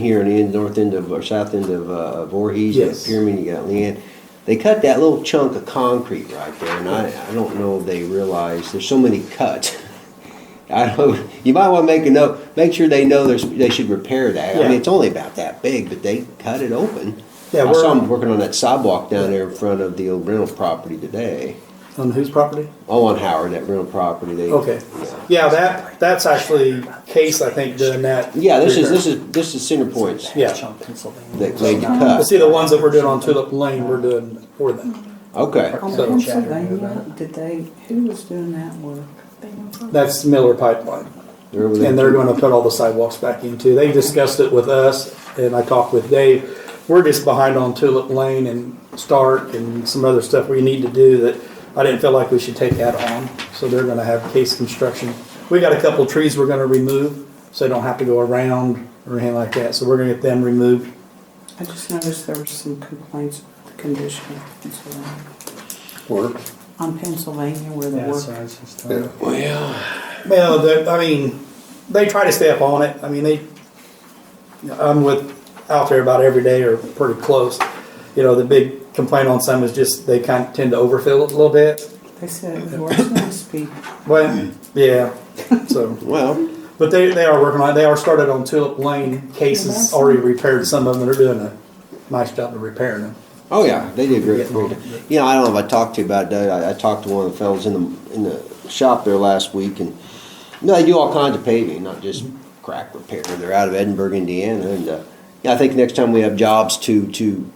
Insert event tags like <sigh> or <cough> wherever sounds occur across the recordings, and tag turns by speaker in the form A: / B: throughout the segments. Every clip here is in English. A: here in the end, north end of, or south end of uh, Voorhees, that
B: Yes.
A: pyramid you got Leanne. They cut that little chunk of concrete right there, and I, I don't know if they realize, there's so many cuts. <laughs> I don't, you might wanna make a note, make sure they know there's, they should repair that. I
B: Yeah.
A: mean, it's only about that big, but they cut it open.
B: Yeah,
A: I saw
B: we're-
A: them working on that sidewalk down there in front of the old rental property today.
B: On whose property?
A: Oh, on Howard, that rental property, they.
B: Okay. Yeah, that, that's actually Case, I think, doing that.
A: Yeah, this is,
B: repair.
A: this is, this is center points
B: Yeah.
A: that made the
B: But
A: cut.
B: see, the ones that we're doing on Tulip Lane, we're doing for them.
A: Okay.
C: On
B: So-
C: Pennsylvania, did they, who was doing that work?
B: That's Miller Pipeline.
A: They're over there.
B: And they're gonna put all the sidewalks back in too. They discussed it with us and I talked with Dave. We're just behind on Tulip Lane and Stark and some other stuff we need to do that I didn't feel like we should take that on. So they're gonna have Case Construction. We got a couple trees we're gonna remove, so they don't have to go around or anything like that. So we're gonna get them removed.
C: I just noticed there were some complaints of the condition of Pennsylvania.
B: Work.
C: on Pennsylvania where the
D: Yeah, so
C: work.
D: it's just-
B: Well, the- I mean, they try to stay up on it. I mean, they, I'm with, out there about every day or pretty close. You know, the big complaint on some is just they kind of tend to overfill it a little bit.
C: They said it was worse last week.
B: But, yeah, so.
A: Well,
B: But they, they are working on it. They are started on Tulip Lane cases, already repaired some of them. They're doing a nice job of repairing them.
A: oh yeah, they did great. great. You know, I don't know if I talked to you about that. I, I talked to one of the fellows in the in the shop there last week, and you know, they do all kinds of paving, not just crack repair. They're out of Edinburgh, Indiana, and uh, yeah, I think next time we have jobs to to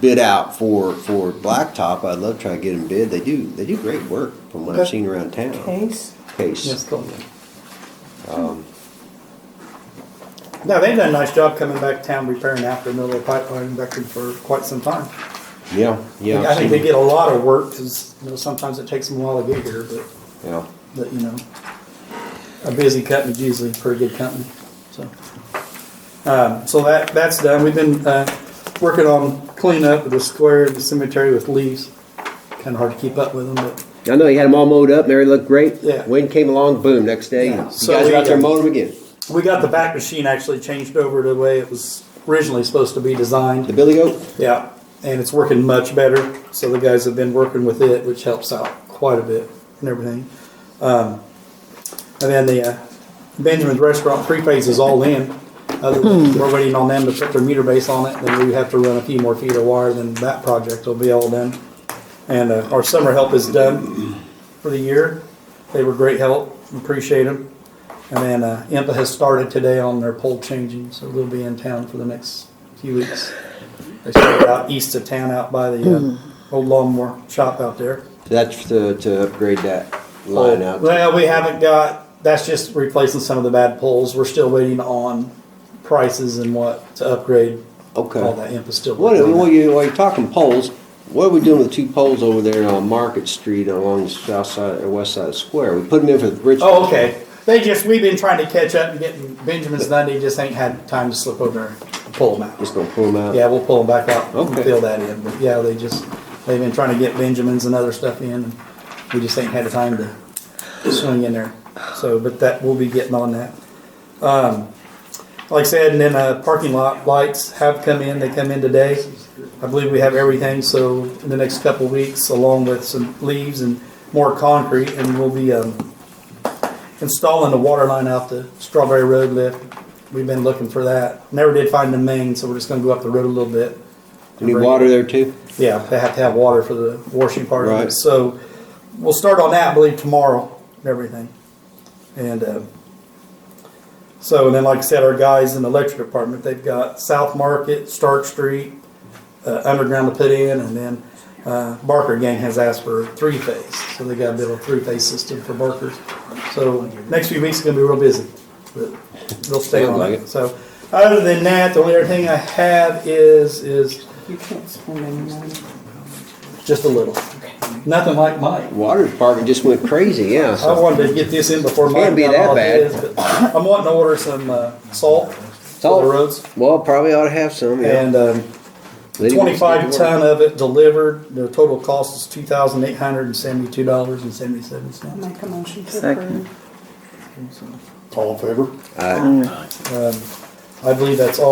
A: bid out for for blacktop, I'd love to try to get them bid. They do they do great work from what I've
B: Okay.
A: seen around town.
C: Case,
A: Case.
B: Yes, totally. No, they've done a nice job coming back to town repairing after Miller Pipeline back in for quite some time.
A: Yeah, yeah.
B: I
A: I've
B: think
A: seen-
B: they get a lot of work because you know sometimes it takes them a while to get here, but
A: yeah.
B: but you know, a busy company's usually a pretty good company. So um, so that that's done. We've been uh, working on cleanup of the square and the cemetery with leaves. Kind of hard to keep up with them, but
A: I know you had them all mowed up. Mary looked great.
B: Yeah.
A: Wind came along, boom. Next day,
B: Yeah.
A: you
B: So
A: guys
B: we- uh,
A: are out there mowing them again.
B: we got the back machine actually changed over to the way it was originally supposed to be designed.
A: The Billy Goat.
B: Yeah, and it's working much better. So the guys have been working with it, which helps out quite a bit and everything. Um, and then the uh, Benjamin's Restaurant three phase is all in. Other than we're waiting on them to put their meter base on it, then we have to run a few more feet of wire, then that project will be all done. And uh, our summer help is done for the year. They were great help, appreciate them. And then uh, IMPA has started today on their pole changing, so they'll be in town for the next few weeks. They started out east of town, out by the uh, old lawnmower shop out there.
A: So that's to, to upgrade that line out.
B: Well, we haven't got, that's just replacing some of the bad poles. We're still waiting on prices and what to upgrade.
A: Okay.
B: All that IMPA still.
A: What,
B: working on
A: what
B: that.
A: you, while you're talking poles, what are we doing with the two poles over there on Market Street along the south side or west side of the square? We put them in for the bridge.
B: Oh, okay. They just, we've been trying to catch up and getting, Benjamin's done, they just ain't had time to slip over and pull them out.
A: Just gonna pull them out.
B: Yeah, we'll pull them back out
A: Okay.
B: and fill that in, but yeah, they just, they've been trying to get Benjamins and other stuff in, and we just ain't had the time to swing in there, so, but that, we'll be getting on that. Um, like I said, and then, uh, parking lot lights have come in, they come in today. I believe we have everything, so in the next couple weeks, along with some leaves and more concrete, and we'll be, um, installing the water line out the Strawberry Road lift. We've been looking for that. Never did find the main, so we're just gonna go up the road a little bit.
A: Need water there too?
B: Yeah, they have to have water for the washing part of
A: Right.
B: it. So we'll start on that, I believe, tomorrow, and everything. And uh, so, and then like I said, our guys in the electric department, they've got South Market, Stark Street, uh, underground to put in, and then uh, Barker Gang has asked for three phase. So they got to build a three phase system for Barkers. So next few weeks is going to be real busy, but they'll stay
A: Sounds
B: on
A: like
B: it.
A: it.
B: So other than that, the only other thing I have is is
C: you can't spend any money.
B: just a little. Nothing like mine.
A: Water department just went crazy, yeah.
B: I
A: So
B: wanted to get this in before mine.
A: Can't be
B: got
A: that
B: all
A: bad.
B: this, but I'm wanting to order some uh, salt for
A: Salt.
B: the roads.
A: Well, probably ought to have some, yeah.
B: And um,
A: Lydia wants to
B: twenty-five
A: get
B: ton
A: water.
B: of it delivered, the total cost is two thousand eight hundred and seventy-two dollars and seventy-seven
C: I
B: cents.
C: make a motion to
E: Second.
C: approve.
B: All in favor?
A: Uh,
B: Um, I believe that's all